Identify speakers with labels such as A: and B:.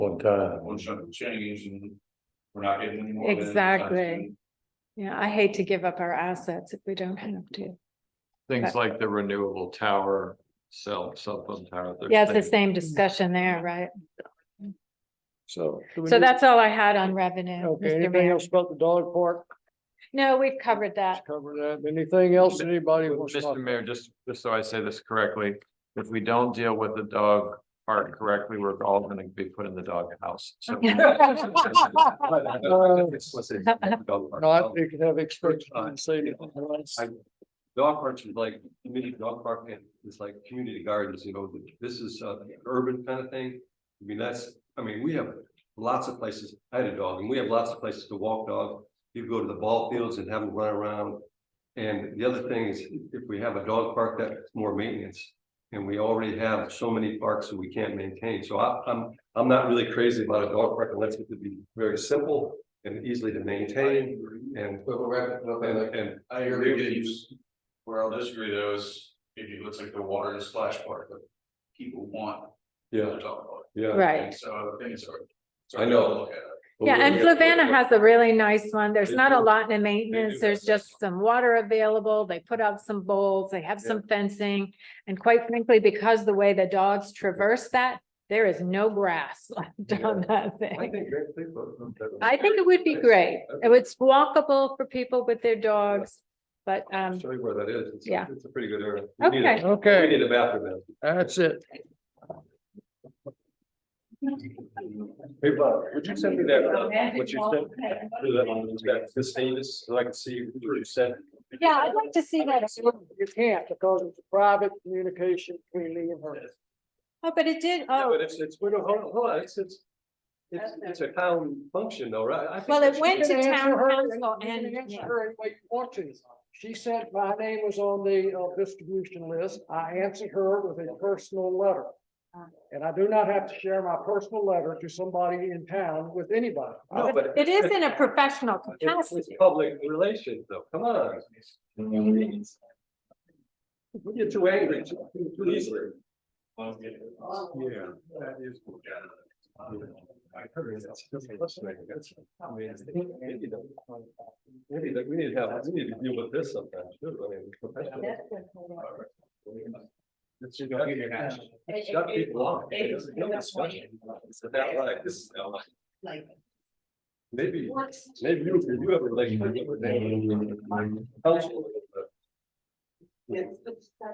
A: one time.
B: one shot change and we're not getting any more. than-
C: Exactly. Yeah, I hate to give up our assets if we don't have to.
D: Things like the renewable tower, cell, cell phone tower. they're
C: Yeah, it's the
D: saying-
C: same discussion there, right?
A: So. do we
C: So
A: need-
C: that's all I had on revenue,
A: Okay,
C: Mr.
A: anything
C: Mayor. Uh,
A: else about the dog park?
C: No, we've covered that.
A: Let's Cover that. Anything else that anybody wants? to talk
D: Mr. Mayor, just, just so I say this correctly, if we don't deal with the dog part correctly, we're all gonna be put in the doghouse. So
A: No, I think you can have experts on say.
B: I- Dog parks is like, community dog park is like community gardens, you know, this is uh urban kind of thing. I mean, that's, I mean, we have lots of places, I had a dog and we have lots of places to walk dog. You go to the ball fields and have them run around. And the other thing is, if we have a dog park, that's more maintenance. And we already have so many parks that we can't maintain, so I I'm, I'm not really crazy about a dog park unless it could be very simple and easily to maintain and. And
E: I agree with you.
B: Use.
E: Where I'll disagree though is if it looks like the water and splash park, but people want
B: Yeah,
E: to talk about
B: yeah.
E: it.
C: Right.
E: And So I think it's. hard- it's
B: I
E: hard to
B: know.
E: look at it.
C: Yeah, and Flavanna has a really nice one. There's
B: They
C: not a
B: do.
C: lot in maintenance.
B: They do.
C: There's just some water available. They put up some bowls, they have
B: Yeah.
C: some fencing. And quite frankly, because the way the dogs traverse that, there is no grass left on that
B: I
C: thing.
B: think great people.
C: I think it would be great. It was walkable for people with their dogs, but um,
B: Show you where that is. It's-
C: yeah.
B: It's a pretty good area. We need a-
C: Okay.
B: We
A: Okay,
B: need a bathroom.
A: that's it.
B: Hey, Bob, would you send me that, what you sent? do that on That this status, so I can see what you sent.
C: yeah, I'd like to see that.
A: You can't because it's private communication between me and her.
C: Oh, but it did,
B: Yeah,
C: oh,
B: But it's, it's, hold on, hold on, it's, it's, it's, it's a town function though, right? I think
C: Well,
B: that
C: it
B: should-
C: went-
A: You can
C: to
A: answer
C: town
A: her-
C: council
A: you can
C: and-
A: answer
C: yeah.
A: her any way you want to. She said my name was on the uh, distribution list. I answered her with a personal letter.
C: Uh.
A: And I do not have to share my personal letter to somebody in town with anybody.
B: No, but
C: it is in a professional
B: it's
C: capacity.
B: it's public relations though, come on. We get too angry too too easily. Yeah, that is. I heard it's. Maybe that we need to have, we need to deal with this sometime too, I mean. professionally. It's you gotta get Shut people off. It's no discussion. It's about like, this is not like- Maybe, maybe you, you have a relationship with them. Council.